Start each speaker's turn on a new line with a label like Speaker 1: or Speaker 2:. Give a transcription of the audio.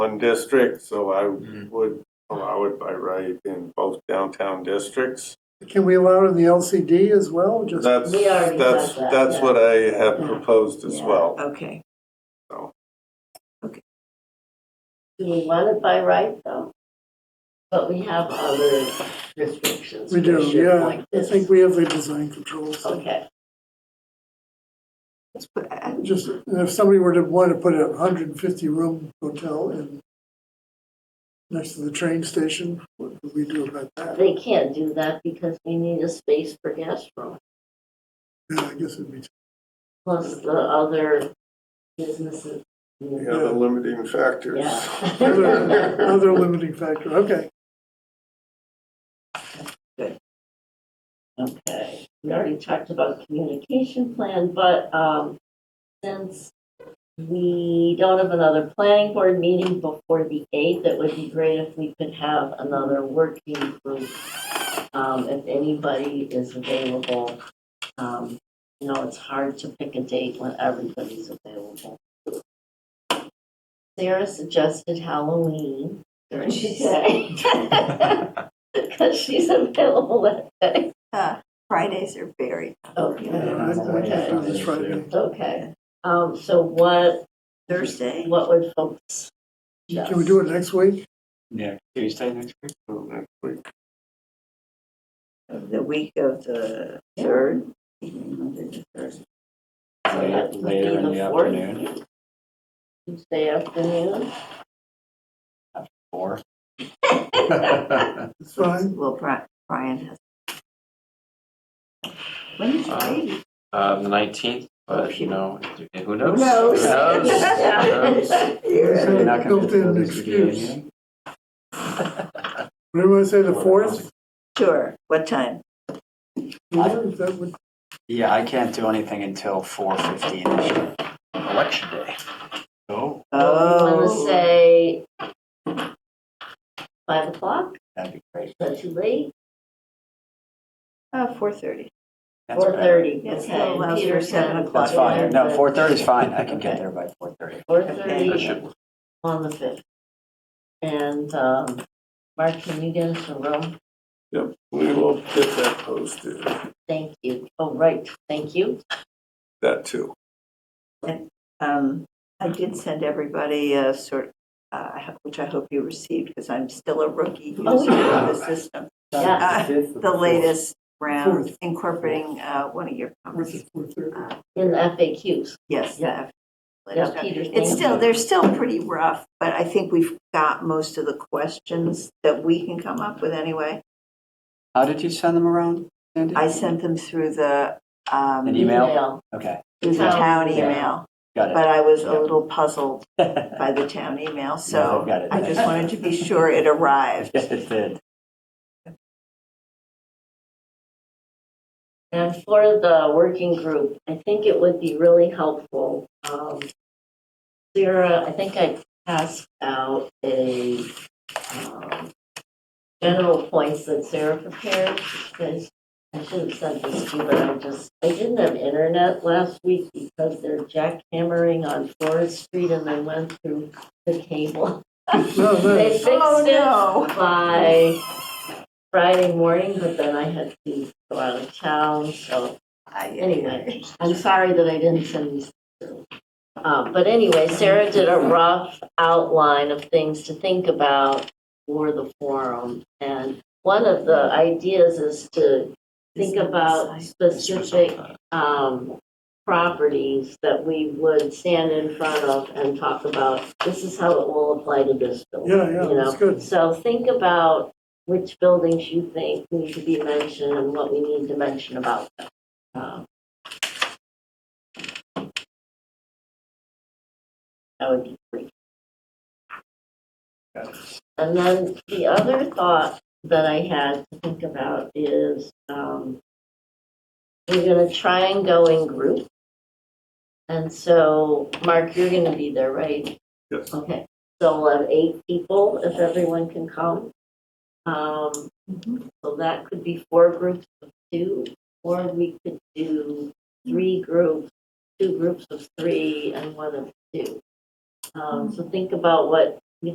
Speaker 1: one district, so I
Speaker 2: Mhm.
Speaker 1: would allow it by right in both downtown districts.
Speaker 3: Can we allow it in the LCD as well? Just
Speaker 1: That's,
Speaker 4: We already
Speaker 1: that's,
Speaker 4: said that,
Speaker 1: that's
Speaker 4: yeah.
Speaker 1: what I have
Speaker 4: Yeah.
Speaker 1: proposed as
Speaker 4: Yeah.
Speaker 1: well.
Speaker 5: Okay.
Speaker 4: Do we want it by right, though? But we have other restrictions.
Speaker 3: We
Speaker 4: for
Speaker 3: do,
Speaker 4: shit
Speaker 3: yeah.
Speaker 4: like
Speaker 3: I
Speaker 4: this.
Speaker 3: think we have the design controls.
Speaker 4: Okay,
Speaker 5: Let's put- I-
Speaker 3: Just, and if somebody were to want to put a hundred and fifty room hotel in next to the train station, what would we do about that?
Speaker 4: they can't do that because we need a space for guest room,
Speaker 3: Yeah, I guess it'd be,
Speaker 4: plus the other businesses.
Speaker 1: Yeah, the limiting factors.
Speaker 3: another
Speaker 4: Yeah.
Speaker 3: another limiting factor, okay.
Speaker 4: Okay, we already talked about communication plan, but um, since we don't have another planning board meeting before the 8th, it would be great if we could have another working group, um, if anybody is available. Um, You know, it's hard to pick a date when everybody's available. Sarah suggested Halloween during the day. Because she's available that day.
Speaker 5: uh, Fridays are very,
Speaker 3: Yeah,
Speaker 4: Okay,
Speaker 3: I- I can't do this Friday.
Speaker 4: okay. Um, so what,
Speaker 5: Thursday?
Speaker 4: what would folks?
Speaker 3: Can we do it next week?
Speaker 2: Yeah, Tuesday next week.
Speaker 5: The week of the third? Monday the third.
Speaker 4: So that would be
Speaker 2: Later in the
Speaker 4: fourth,
Speaker 2: afternoon,
Speaker 4: Tuesday afternoon,
Speaker 2: four.
Speaker 3: It's fine.
Speaker 5: Well, Bri- Brian has. When is Brady?
Speaker 2: Um, the nineteenth, but you know, who knows?
Speaker 4: knows?
Speaker 2: Who knows?
Speaker 4: Yeah.
Speaker 2: So you're not gonna
Speaker 3: Built-in
Speaker 2: know this would be
Speaker 3: excuse.
Speaker 2: anything?
Speaker 3: What do you want to say, the fourth?
Speaker 5: Sure, what time?
Speaker 3: Is that what-
Speaker 2: Yeah, I can't do anything until four fifteen election day. Oh,
Speaker 4: I'm gonna say five o'clock,
Speaker 2: that'd be great.
Speaker 4: is that too late?
Speaker 5: Uh, four thirty.
Speaker 2: That's
Speaker 4: Four
Speaker 2: better.
Speaker 4: thirty,
Speaker 5: Yes, that
Speaker 4: okay.
Speaker 5: allows
Speaker 4: Peter
Speaker 5: for seven
Speaker 4: can-
Speaker 2: That's fine. No, four thirty is fine. I can get
Speaker 4: Okay.
Speaker 2: there by four thirty.
Speaker 4: Four
Speaker 5: Okay.
Speaker 2: That
Speaker 4: thirty
Speaker 2: should,
Speaker 4: on the fifth. And, um, Mark, can you get us a room?
Speaker 1: Yep, we will get that posted,
Speaker 4: Thank you. Oh, right, thank you.
Speaker 1: that too.
Speaker 5: Um, I did send everybody a sort, uh, I ho- which I hope you received, because I'm still a rookie user
Speaker 4: Oh,
Speaker 5: of the system.
Speaker 4: Yeah,
Speaker 5: Uh, The latest round
Speaker 3: Fourth.
Speaker 5: incorporating, uh, one of your
Speaker 3: Fourth
Speaker 5: comments.
Speaker 3: is fourth, third.
Speaker 4: in the FAQs.
Speaker 5: Yes,
Speaker 4: Yeah.
Speaker 5: the latest
Speaker 4: Yeah,
Speaker 5: round.
Speaker 4: Peter,
Speaker 5: It's
Speaker 4: thank you.
Speaker 5: still, they're still pretty rough, but I think we've got most of the questions that we can come up with anyway.
Speaker 2: How did you send them around, Sandy?
Speaker 5: I sent them through the, um,
Speaker 2: An email? Okay,
Speaker 5: through the town email,
Speaker 2: got
Speaker 5: but
Speaker 2: it.
Speaker 5: I was a little puzzled
Speaker 2: Yeah,
Speaker 5: by the town email,
Speaker 2: I've
Speaker 5: so
Speaker 2: got it.
Speaker 5: I just wanted to be sure it arrived.
Speaker 2: Yes, it did.
Speaker 4: And for the working group, I think it would be really helpful. um, Sarah, I think I passed out a um, general points that Sarah prepared. because I should have sent this to you, but I just, I didn't have internet last week because they're jackhammering on Forest Street and they went through the cable.
Speaker 3: No, no.
Speaker 4: They fixed
Speaker 5: Oh,
Speaker 4: it
Speaker 5: no.
Speaker 4: by Friday morning, but then I had to go out of town, so anyway, I'm sorry that I didn't send these. through. Um, but anyway, Sarah did a rough outline of things to think about for the forum. And one of the ideas is to think about specific, um, properties that we would stand in front of and talk about, this is how it will apply to this building.
Speaker 3: Yeah, yeah,
Speaker 4: you know?
Speaker 3: that's good.
Speaker 4: So think about which buildings you think need to be mentioned and what we need to mention about them. Um, That would be great. And then the other thought that I had to think about is, um, we're gonna try and go in group. And so, Mark, you're gonna be there, right?
Speaker 1: Yes.
Speaker 4: Okay. So we'll have eight people if everyone can come. Um, so that could be four groups of two, or we could do three groups, two groups of three and one of two. Um, so think about what